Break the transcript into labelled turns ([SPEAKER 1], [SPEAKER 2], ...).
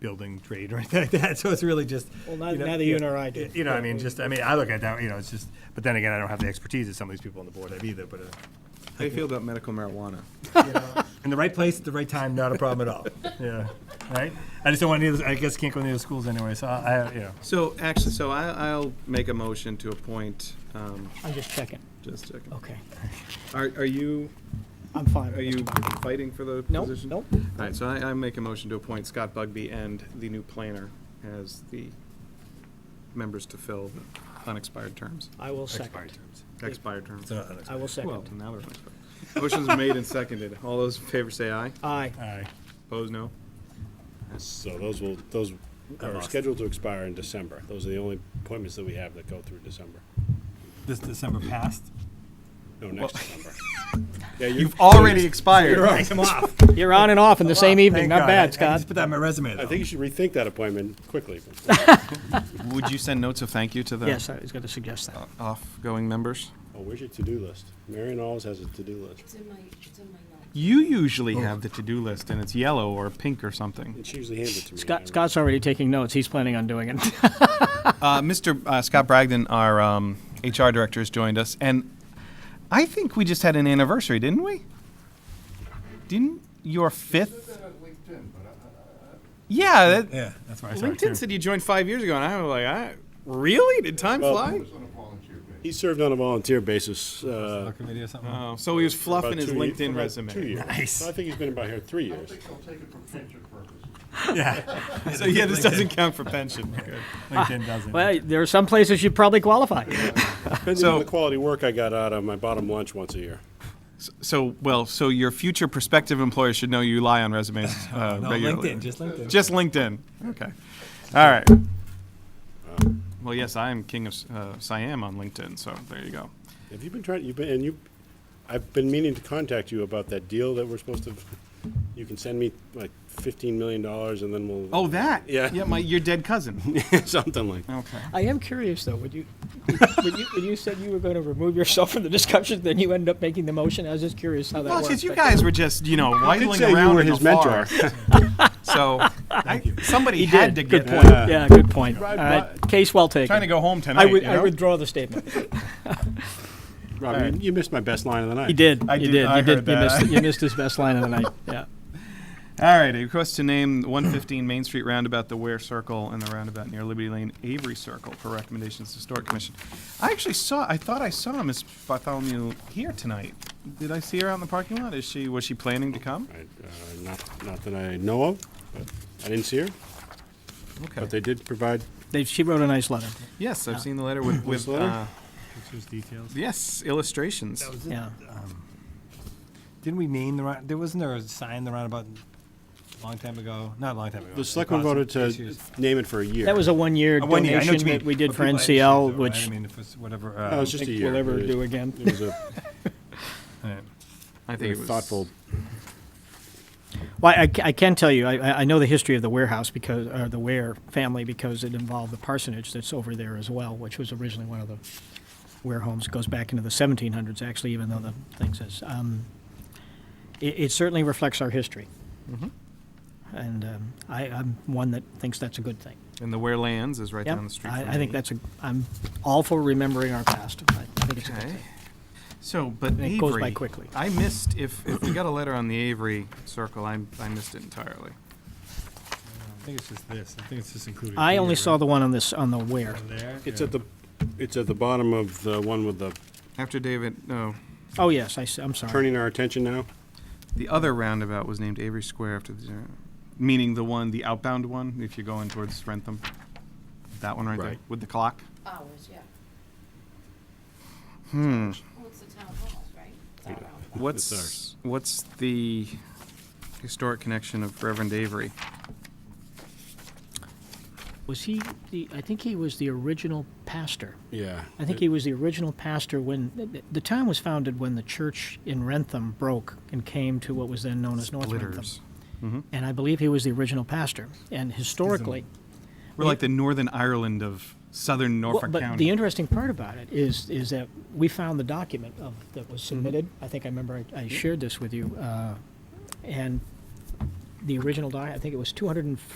[SPEAKER 1] building trade or anything like that, so it's really just.
[SPEAKER 2] Well, neither-
[SPEAKER 1] know,
[SPEAKER 2] neither you nor I do.
[SPEAKER 1] You know, I mean, just, I mean, I look at that, you know, it's just, but then again, I don't have the expertise that some of these people on the board have either, but, uh,
[SPEAKER 3] How do you feel about medical marijuana?
[SPEAKER 1] you know, in the right place, at the right time, not a problem at all, yeah, right? I just don't want any of, those- I guess can't go to any of the schools anyway, so I, I, you know.
[SPEAKER 3] So, actually, so I, I'll make a motion to appoint, um,
[SPEAKER 2] I'm just checking.
[SPEAKER 3] just a second.
[SPEAKER 2] Okay,
[SPEAKER 3] Are, are you,
[SPEAKER 2] I'm fine.
[SPEAKER 3] are you fighting for the
[SPEAKER 2] No,
[SPEAKER 3] position?
[SPEAKER 2] no.
[SPEAKER 3] All right, so I, I make a motion to appoint Scott Bugby and the new planner as the members to fill the unexpired terms,
[SPEAKER 2] I will
[SPEAKER 1] Expired
[SPEAKER 2] second.
[SPEAKER 1] terms.
[SPEAKER 3] expired terms.
[SPEAKER 1] It's not unexpired.
[SPEAKER 2] I will
[SPEAKER 3] Well,
[SPEAKER 2] second.
[SPEAKER 3] now they're unexpired. Motion's made and seconded. All those in favor say aye.
[SPEAKER 2] Aye.
[SPEAKER 1] Aye.
[SPEAKER 3] Opposed, no?
[SPEAKER 4] So those will, those are
[SPEAKER 1] lost.
[SPEAKER 4] scheduled to expire in December. Those are the only appointments that we have that go through December.
[SPEAKER 1] This December passed?
[SPEAKER 4] No, next December. Yeah, you're-
[SPEAKER 3] You've already expired.
[SPEAKER 1] Take them off.
[SPEAKER 2] You're on and off in the same evening,
[SPEAKER 1] Thank
[SPEAKER 2] not
[SPEAKER 1] God. I- I
[SPEAKER 2] bad,
[SPEAKER 1] just
[SPEAKER 2] Scott.
[SPEAKER 1] put that on my resume, though.
[SPEAKER 4] I think you should rethink that appointment quickly.
[SPEAKER 3] Would you send notes of thank you to the
[SPEAKER 2] Yes, I was gonna suggest that.
[SPEAKER 3] off-going members?
[SPEAKER 4] Oh, where's your to-do list? Marion always has a to-do list.
[SPEAKER 5] It's in my, it's in my notes.
[SPEAKER 3] You usually have the to-do list and it's yellow or pink or something.
[SPEAKER 4] And she usually hands it to me.
[SPEAKER 2] Scott, Scott's already taking notes. He's planning on doing it.
[SPEAKER 3] Uh, Mr. Uh, Scott Bragdon, our um, HR director, has joined us, and I think we just had an anniversary, didn't we? Didn't your fifth? Yeah, that,
[SPEAKER 1] Yeah, that's where I saw it, too.
[SPEAKER 3] LinkedIn said you joined five years ago, and I was like, I, really? Did time
[SPEAKER 4] Well-
[SPEAKER 3] fly?
[SPEAKER 4] He served on a volunteer basis. uh,
[SPEAKER 1] Soccer video or something?
[SPEAKER 3] Oh, so he was
[SPEAKER 4] about
[SPEAKER 3] fluffing his
[SPEAKER 4] two ye-
[SPEAKER 3] LinkedIn
[SPEAKER 4] about
[SPEAKER 3] resume.
[SPEAKER 4] Two years.
[SPEAKER 1] Nice.
[SPEAKER 4] So I think he's been about here three years.
[SPEAKER 1] Yeah,
[SPEAKER 3] So yeah, this doesn't count for pension.
[SPEAKER 1] LinkedIn doesn't.
[SPEAKER 2] Well, there are some places you'd probably qualify.
[SPEAKER 4] Depending on the quality work I got out of my bottom lunch once a year.
[SPEAKER 3] So well, so your future prospective employer should know you lie on resumes uh,
[SPEAKER 1] No,
[SPEAKER 3] regularly.
[SPEAKER 1] LinkedIn, just LinkedIn.
[SPEAKER 3] Just LinkedIn. Okay. All right. Well, yes, I am king of uh, Siam on LinkedIn, so there you go.
[SPEAKER 4] Have you been trying, you've been, and you, I've been meaning to contact you about that deal that we're supposed to, you can send me like fifteen million dollars and then we'll.
[SPEAKER 3] Oh, that?
[SPEAKER 4] Yeah.
[SPEAKER 3] Yeah, my your dead cousin.
[SPEAKER 4] Something like,
[SPEAKER 3] okay.
[SPEAKER 2] I am curious, though, when you, when you, when you said you were gonna remove yourself from the discussion, then you ended up making the motion. I was just curious how that
[SPEAKER 3] Well,
[SPEAKER 2] worked.
[SPEAKER 3] since you
[SPEAKER 2] but-
[SPEAKER 3] guys were just you know
[SPEAKER 4] I did
[SPEAKER 3] whiteling
[SPEAKER 4] say you
[SPEAKER 3] around
[SPEAKER 4] were
[SPEAKER 3] in
[SPEAKER 4] his
[SPEAKER 3] the
[SPEAKER 4] mentor.
[SPEAKER 3] forest, so I, somebody
[SPEAKER 2] He
[SPEAKER 3] had
[SPEAKER 2] did.
[SPEAKER 3] to
[SPEAKER 2] Good
[SPEAKER 3] get
[SPEAKER 2] point. Yeah, good point. All
[SPEAKER 4] Right,
[SPEAKER 2] right,
[SPEAKER 4] but-
[SPEAKER 2] case well taken.
[SPEAKER 3] Trying to go home tonight.
[SPEAKER 2] I would,
[SPEAKER 3] you
[SPEAKER 2] I
[SPEAKER 3] know?
[SPEAKER 2] withdraw the statement.
[SPEAKER 4] Rob, you- you missed my best line of the night.
[SPEAKER 2] He did.
[SPEAKER 3] I
[SPEAKER 2] you
[SPEAKER 3] did-
[SPEAKER 2] did.
[SPEAKER 3] I
[SPEAKER 2] you
[SPEAKER 3] heard
[SPEAKER 2] did. You
[SPEAKER 3] that.
[SPEAKER 2] missed, you missed his best line of the night. Yeah.
[SPEAKER 3] All right, a request to name 115 Main Street Roundabout the Ware Circle and the roundabout near Liberty Lane Avery Circle for recommendations to Historic Commission. I actually saw, I thought I saw Miss Bartholomew here tonight. Did I see her out in the parking lot? Is she, was she planning to come?
[SPEAKER 4] I- uh, Not, not that I know of, but I didn't see her, but
[SPEAKER 3] Okay.
[SPEAKER 4] they did provide,
[SPEAKER 2] They, she wrote a nice letter.
[SPEAKER 3] Yes, I've seen the letter with, with,
[SPEAKER 4] letter?
[SPEAKER 3] uh,
[SPEAKER 1] Pictures, details.
[SPEAKER 3] yes, illustrations.
[SPEAKER 2] Yeah.
[SPEAKER 1] Didn't we name the, round- there wasn't there a sign the roundabout a long time ago? Not a long time ago.
[SPEAKER 4] the selectmen voted to name it for a year.
[SPEAKER 2] That was a one-year
[SPEAKER 1] A one year, I know what
[SPEAKER 2] donation
[SPEAKER 1] you
[SPEAKER 2] that
[SPEAKER 1] mean.
[SPEAKER 2] we did
[SPEAKER 1] But
[SPEAKER 2] for
[SPEAKER 1] people had issues though,
[SPEAKER 2] NCL,
[SPEAKER 1] right? I
[SPEAKER 2] which
[SPEAKER 1] mean, if it's whatever.
[SPEAKER 4] No, it
[SPEAKER 1] uh,
[SPEAKER 4] was just a
[SPEAKER 2] think
[SPEAKER 4] year.
[SPEAKER 2] we'll ever
[SPEAKER 4] It-
[SPEAKER 2] do again.
[SPEAKER 4] It was a
[SPEAKER 1] all right.
[SPEAKER 3] I
[SPEAKER 4] very
[SPEAKER 3] think it was.
[SPEAKER 4] thoughtful,
[SPEAKER 2] Well, I, ca- I can tell you, I- I, I know the history of the warehouse because, or the Ware family, because it involved the parsonage that's over there as well, which was originally one of the Ware homes. It goes back into the 1700s, actually, even though the thing says. Um, it, it certainly reflects our history.
[SPEAKER 1] Mm-hmm.
[SPEAKER 2] And um, I, I'm one that thinks that's a good thing.
[SPEAKER 3] And the Ware Lands is right
[SPEAKER 2] Yep.
[SPEAKER 3] down the street
[SPEAKER 2] I,
[SPEAKER 3] from
[SPEAKER 2] I think
[SPEAKER 3] me.
[SPEAKER 2] that's a, I'm all for remembering our past. I think it's a good
[SPEAKER 3] Okay.
[SPEAKER 2] thing.
[SPEAKER 3] So, but
[SPEAKER 2] it
[SPEAKER 3] Avery.
[SPEAKER 2] goes by quickly.
[SPEAKER 3] I missed, if, if we got a letter on the Avery Circle, I, I missed it entirely.
[SPEAKER 1] I think it's just this. I think it's just included.
[SPEAKER 2] I
[SPEAKER 1] here,
[SPEAKER 2] only saw
[SPEAKER 1] right?
[SPEAKER 2] the one on this, on the Ware.
[SPEAKER 1] Down there.
[SPEAKER 4] it's
[SPEAKER 1] yeah.
[SPEAKER 4] at the, it's at the bottom of the one with the,
[SPEAKER 3] After David, no,
[SPEAKER 2] Oh, yes, I, am sorry.
[SPEAKER 4] turning our attention now.
[SPEAKER 3] The other roundabout was named Avery Square after the, meaning the one, the outbound one, if you're going towards Rentham. That one right, there
[SPEAKER 4] Right.
[SPEAKER 3] with the clock.
[SPEAKER 5] Hours, yeah.
[SPEAKER 3] Hmm.
[SPEAKER 5] Well, it's the town halls, right? It's all around.
[SPEAKER 3] What's what's the historic connection of Reverend Avery?
[SPEAKER 2] Was he the? I think he was the original pastor.
[SPEAKER 4] Yeah.
[SPEAKER 2] I think he was the original pastor when the, the town was founded when the church in Rentham broke and came to what was then known as North
[SPEAKER 3] Splitters. Mm-hmm.
[SPEAKER 2] Rentham. And I believe he was the original pastor. And historically,
[SPEAKER 3] We're like the Northern Ireland of Southern
[SPEAKER 2] well,
[SPEAKER 3] Norfolk
[SPEAKER 2] but
[SPEAKER 3] County.
[SPEAKER 2] the interesting part about it is is that we found the document of that was
[SPEAKER 3] Mm-hmm.
[SPEAKER 2] submitted. I think I remember I, I shared this with you, uh, and the original doc. I think it was 240.